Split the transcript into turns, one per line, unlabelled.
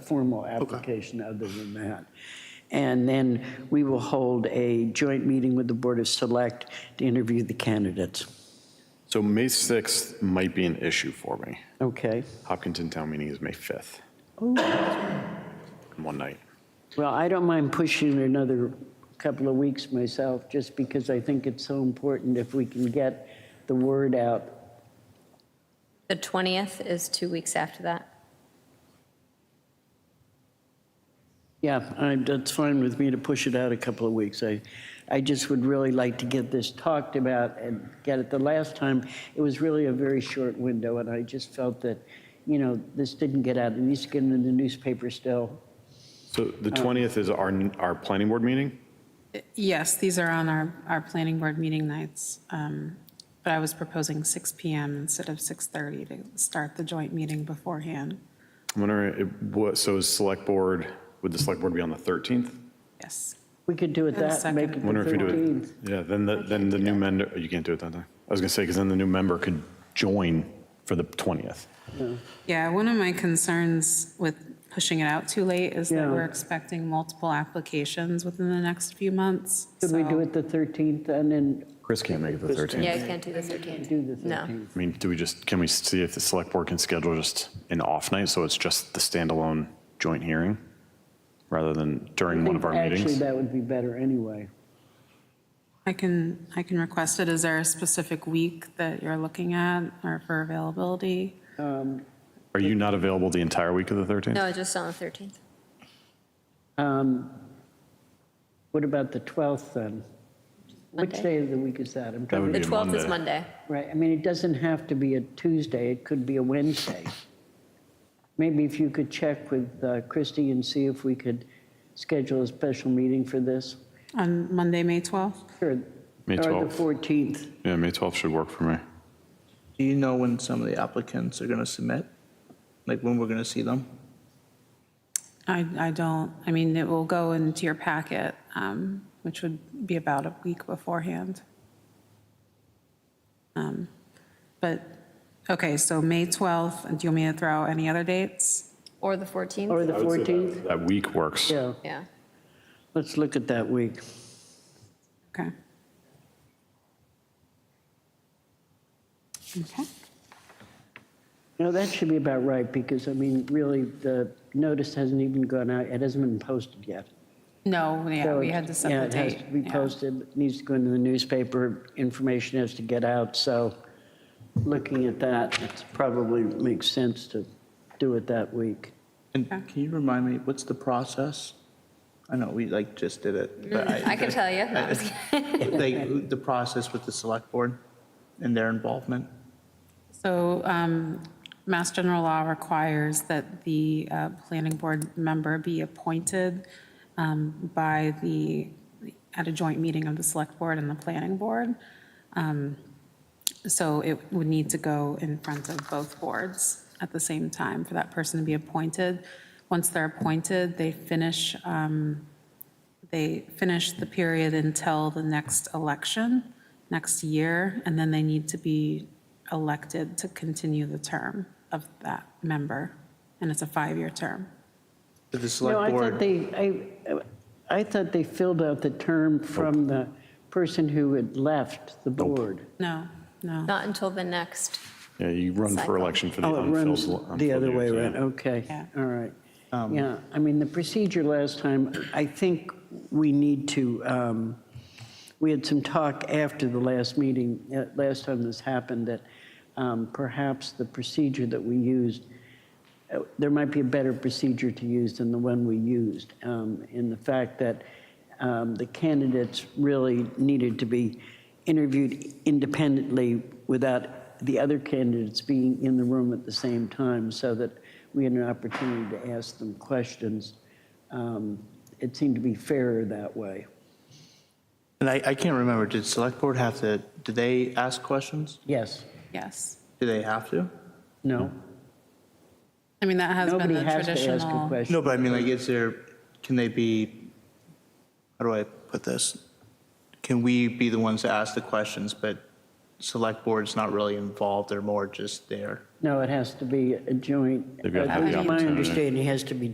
formal application other than that. And then we will hold a joint meeting with the Board of Select to interview the candidates.
So May 6th might be an issue for me.
Okay.
Hopkinton Town Meeting is May 5th. One night.
Well, I don't mind pushing it another couple of weeks myself, just because I think it's so important if we can get the word out.
The 20th is two weeks after that.
Yeah, I- that's fine with me to push it out a couple of weeks. I, I just would really like to get this talked about and get it. The last time, it was really a very short window, and I just felt that, you know, this didn't get out. It needs to get into the newspaper still.
So the 20th is our, our planning board meeting?
Yes, these are on our, our planning board meeting nights, um, but I was proposing 6 PM instead of 6:30 to start the joint meeting beforehand.
I'm wondering, it- what, so is select board, would the select board be on the 13th?
Yes.
We could do it
And a
that, make it
second.
the
Wonder if we do
13th.
it, yeah, then, the then the new member, you can't do it that time. I was going to say, because then the new member could join for the 20th.
Yeah, one of my concerns with pushing it out too late is that
Yeah.
we're expecting multiple applications within the next few months.
Could we
so-
do it the 13th and then
Chris can't make it the 13th.
Yeah, I can't do the 13th.
do the
No.
13th?
I mean, do we just, can we see if the select board can schedule just an off night, so it's just the standalone joint hearing, rather than during one of our
Actually,
meetings?
that would be better anyway.
I can, I can request it. Is there a specific week that you're looking at or for availability?
Are you not available the entire week of the 13th?
No, just on the 13th.
What about the 12th then? Which
Monday.
day of the week is that? I'm
That
trying
would be
The
a
12th is Monday.
Right, I mean, it doesn't have to be a Tuesday, it could be a Wednesday. Maybe if you could check with uh, Christie and see if we could schedule a special meeting for this.
On Monday, May 12th?
Or
May
Or
12th.
the 14th.
Yeah, May 12th should work for me.
Do you know when some of the applicants are going to submit? Like when we're going to see them?
I, I don't, I mean, it will go into your packet, um, which would be about a week beforehand. Um, But, okay, so May 12th, and do you want me to throw out any other dates?
Or the 14th?
Or the 14th?
That week works.
Yeah,
Yeah.
let's look at that week.
Okay. Okay,
No, that should be about right, because, I mean, really, the notice hasn't even gone out, it hasn't been posted yet.
no, yeah,
So
we
it-
had to set
yeah,
the date.
It has to be
yeah.
posted, it needs to go into the newspaper, information has to get out, so looking at that, it probably makes sense to do it that week.
And can you remind me, what's the process? I know we like just did it, but I.
Mm, I can tell you. No, I'm just
Like the process with the select board and their involvement?
So um, Mass General Law requires that the uh, planning board member be appointed um, by the, at a joint meeting of the select board and the planning board. Um, So it would need to go in front of both boards at the same time for that person to be appointed. Once they're appointed, they finish, um, they finish the period until the next election, next year, and then they need to be elected to continue the term of that member, and it's a five-year term.
Did the
No, I thought
select board,
they, I, I thought they filled out the term from the person who had left the board.
No, no.
Not until the next.
Yeah, you run for
Cycle.
election for the
Oh, it
unfilled.
runs the
unfilled
other way
years, yeah. Um,
around, okay,
Yeah.
all right. Yeah, I mean, the procedure last time, I think we need to, um, we had some talk after the last meeting, uh, last time this happened, that um, perhaps the procedure that we used, uh, there might be a better procedure to use than the one we used, um, in the fact that um, the candidates really needed to be interviewed independently without the other candidates being in the room at the same time, so that we had an opportunity to ask them questions. Um, It seemed to be fairer that way.
and I, I can't remember, did select board have to, did they ask questions?
Yes,
Yes.
Do they have to?
no?
I mean, that has been
Nobody
the
has to ask a
traditional.
question.
No, but I mean, like, is there, can they be, how do I put this? Can we be the ones to ask the questions, but select board's not really involved, they're more just there?
No, it has to be a joint.
They've got to have
At
the
least My
opportunity.
understanding has to be